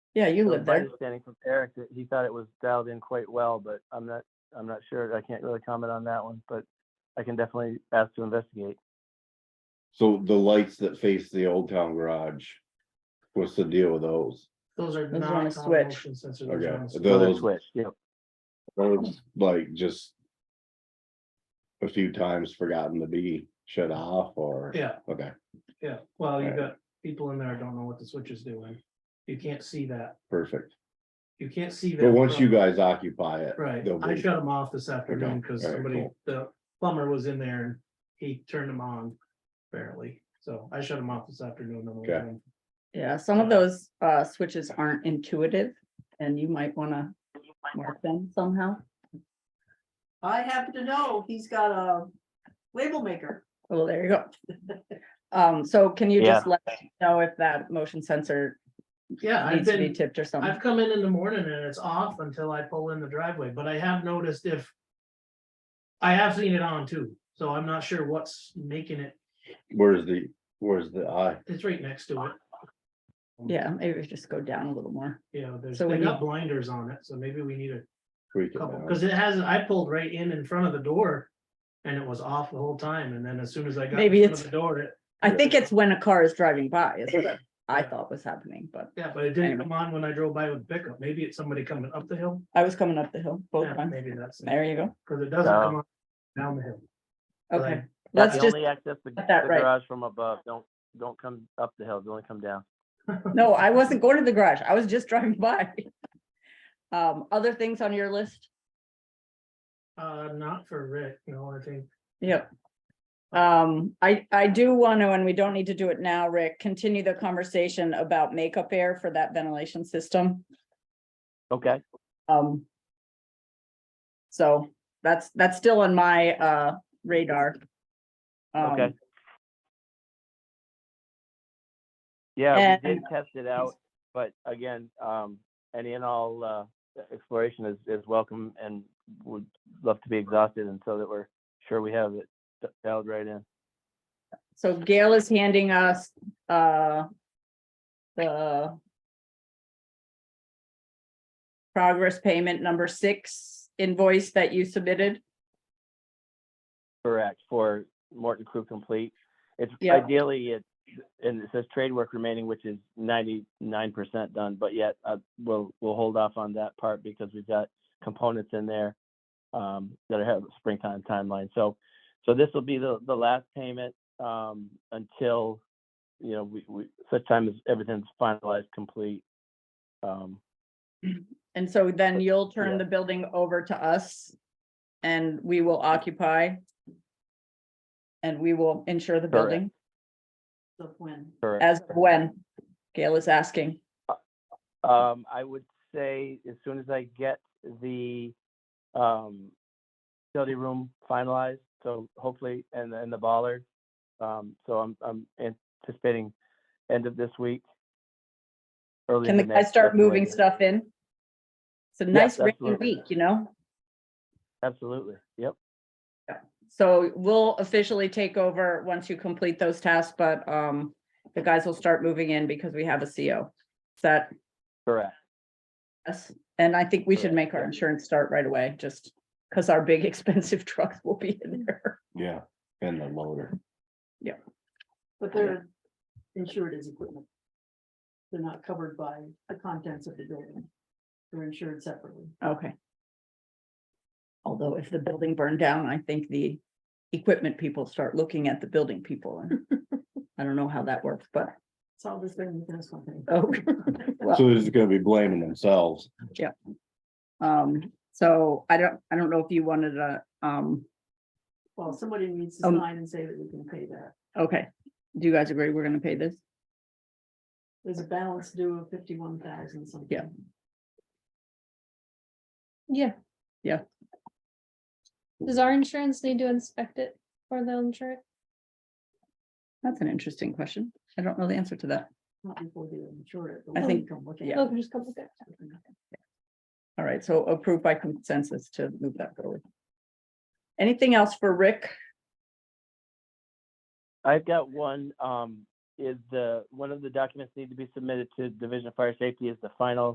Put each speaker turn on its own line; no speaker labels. Yeah, you
So
live
My
there.
understanding from Eric, that he thought it was dialed in quite well, but I'm not, I'm not sure. I can't really comment on that one, but I can definitely ask to investigate.
So the lights that face the old town garage, what's the deal with those?
Those are
Those are on a
not
switch.
common motion sensors.
Okay,
those are on
so
a switch.
those-
Another switch, yep.
Those like just a few times forgotten to be shut off or?
Yeah,
Okay,
yeah. Well, you
Alright.
got people in there don't know what the switch is doing. You can't see that.
perfect.
You can't see that.
But once
from-
you guys occupy it.
Right,
they'll
I
be-
shut them off this afternoon
Okay,
because
alright,
somebody,
cool.
the plumber was in there and he turned them on apparently. So I shut them off this afternoon. and we
Okay.
went-
Yeah, some of
Yeah.
those uh switches aren't intuitive and you might wanna mark them somehow.
I happen to know he's got a label maker.
Well, Oh, there you go. Um, so can you just let us know if that motion sensor
Yeah, I've
needs to be
been,
tipped or something?
I've come in in the morning and it's off until I pull in the driveway, but I have noticed if I have seen it on too, so I'm not sure what's making it.
Where's the, where's the eye?
It's right next to it.
Yeah, maybe we just go down a little more.
Yeah, there's,
So
they
we
got blinders on it, so maybe we need a
Tweak it
couple,
down.
because it has, I pulled right in in front of the door. And it was off the whole time, and then as soon as I got. in
Maybe
front of
it's-
The door, it,
I
Yeah.
think it's when a car is driving by is what I
Yeah.
thought was happening, but
yeah, but it didn't
Anyway.
come on when I drove by with pickup, maybe it's somebody coming up the hill.
I was coming up the hill both
Yeah,
times.
Maybe that's,
There you go.
because it doesn't
No.
come on down the hill. But I-
Okay,
That's
let's
the
just,
only access to the
get that right.
garage from above. Don't, don't come up the hill, only come down.
no, I wasn't going to the garage. I was just driving by. Um, other things on your list?
Uh, not for Rick, no, I think,
Yep. Um, I, I do want to, and we don't need to do it now, Rick, continue the conversation about makeup air for that ventilation system.
Okay,
Um. So that's, that's still on my, uh, radar. Um,
Okay. yeah, we did
And-
test it out, but again, um, any and all, uh, exploration is, is welcome and would love to be exhausted and so that we're sure we have it dialed right in.
So Gail is handing us, uh, the progress payment number six invoice that you submitted.
Correct, for Morton Crew Complete. It's
Yeah.
ideally, it, and it says trade work remaining, which is ninety-nine percent done, but yet, uh, we'll, we'll hold off on that part because we've got components in there um, that have a springtime timeline. So, so this will be the, the last payment, um, until, you know, we, we, such time as everything's finalized, complete. Um,
And so then you'll turn
Yeah.
the building over to us and we will occupy. And we will insure the
Correct.
building
So when,
correct.
as of when Gail is asking.
Um, I would say as soon as I get the, um, utility room finalized, so hopefully, and, and the bollard. Um, so I'm, I'm anticipating end of this week. early
Can the
into
guys
next,
start
that's the way
moving
it is.
stuff in? It's a nice
Yes,
rainy
absolutely.
week, you know?
Absolutely, yep,
So we'll officially take over once you complete those tasks, but um, the guys will start moving in because we have a CO. Is That,
correct.
us? and I think we should
Correct,
make our
yeah.
insurance start right away, just because our big expensive trucks will be in there.
Yeah, and the loader.
but they're insured as equipment. They're not covered by the contents of the building. They're insured separately.
Okay. Although if the building burned down, I think the equipment people start looking at the building people and I don't know how that works, but,
It's all this thing, this company.
oh. well.
So this is gonna be blaming themselves.
Um, so I don't, I don't know if you wanted to, um,
Well, somebody needs to
Um,
sign and say that we can pay that.
okay, do you guys agree we're gonna pay this?
There's a balance due of fifty-one thousand something.
Yeah. Yeah.
Does our insurance need to inspect it for the insurance?
That's an interesting question. I don't know the answer to that.
Not before they insure it. but
I
we
think-
can look at
yeah.
Oh,
it.
we just come with it.
All right, so approved by consensus to move that forward. Anything else for Rick?
I've got one, um, is the, one of the documents need to be submitted to Division of Fire Safety is the final